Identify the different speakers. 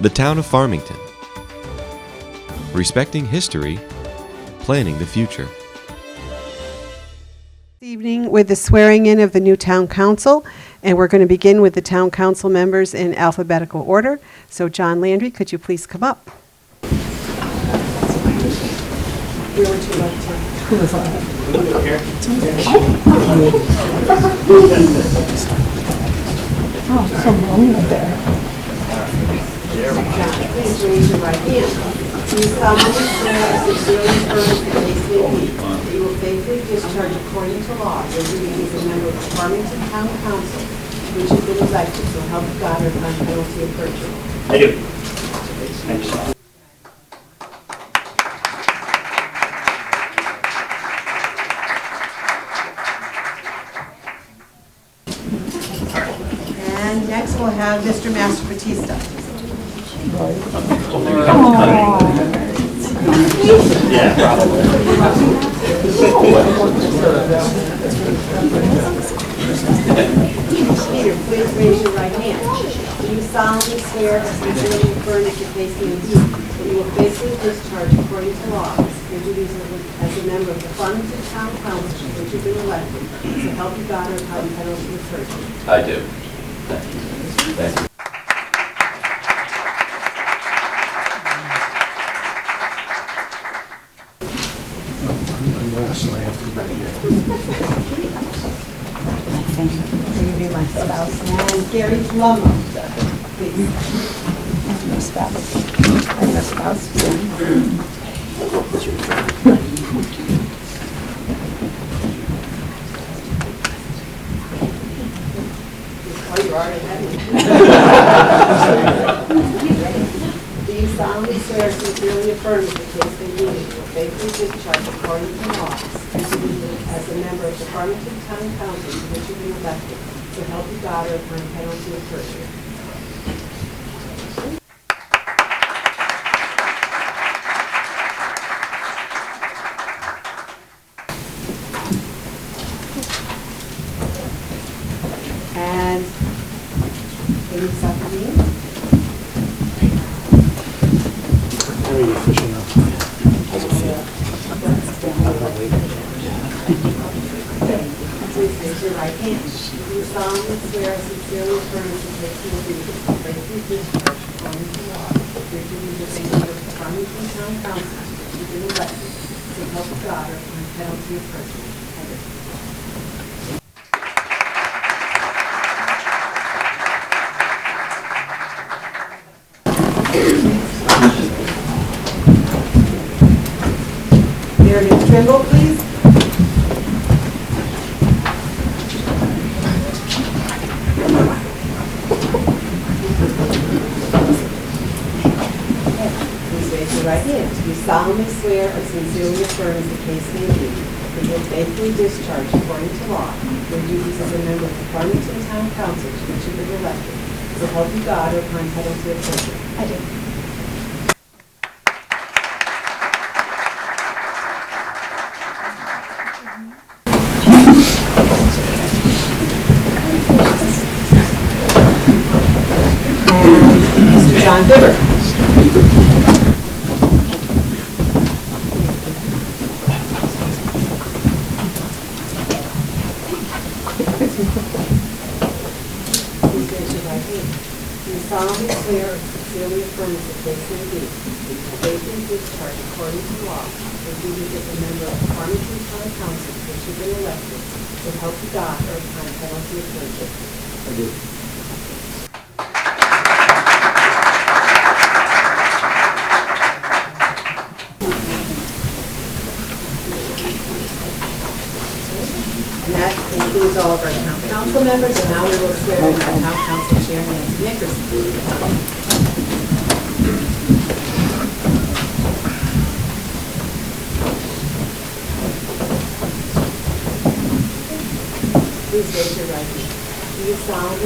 Speaker 1: The town of Farmington. Respecting history, planning the future.
Speaker 2: This evening with the swearing-in of the new town council, and we're going to begin with the town council members in alphabetical order. So John Landry, could you please come up? Please raise your right hand. Do you solemnly swear or sincerely affirm the case may be that you will faithfully discharge according to law your duties as a member of the Farmington Town Council, which has been elected, so help you God, or upon penalty of perjury?
Speaker 3: I do.
Speaker 2: And next, we'll have Mr. Master Batista. Peter, please raise your right hand. Do you solemnly swear or sincerely affirm that you faithfully do, that you will faithfully discharge according to law your duties as a member of the Farmington Town Council, which you've been elected, so help you God, or upon penalty of perjury?
Speaker 3: I do.
Speaker 2: Will you be my spouse? And Gary Plummer, please.
Speaker 4: my spouse. I'm your spouse, Jim.
Speaker 2: Oh, you already have it. Do you solemnly swear or sincerely affirm that the case may be that you will faithfully discharge according to law and duty as a member of the Farmington Town Council to which you've been elected, to help your daughter upon penalty of perjury? And Amy Suffering? Please raise your right hand. Do you solemnly swear or sincerely affirm that you take the oath of faithfully discharge according to law your duties as a member of the Farmington Town Council to be elected to help God or upon penalty of perjury? I do. Meredith Trimble, please. Please raise your right hand. Do you solemnly swear or sincerely affirm as the case may be that you will faithfully discharge according to law your duties as a member of the Farmington Town Council to which you have been elected, so help you God or upon penalty of perjury?
Speaker 4: I do.
Speaker 2: Mr. John Bibber. Please raise your right hand. Do you solemnly swear or sincerely affirm that the case may be that you faithfully discharge according to law your duties as a member of the Farmington Town Council to which you've been elected will help you God or upon penalty of perjury? And that includes all of our town council members, and now we will swear in our town council chair, Nancy Nickerson. Please raise your right hand. Do you solemnly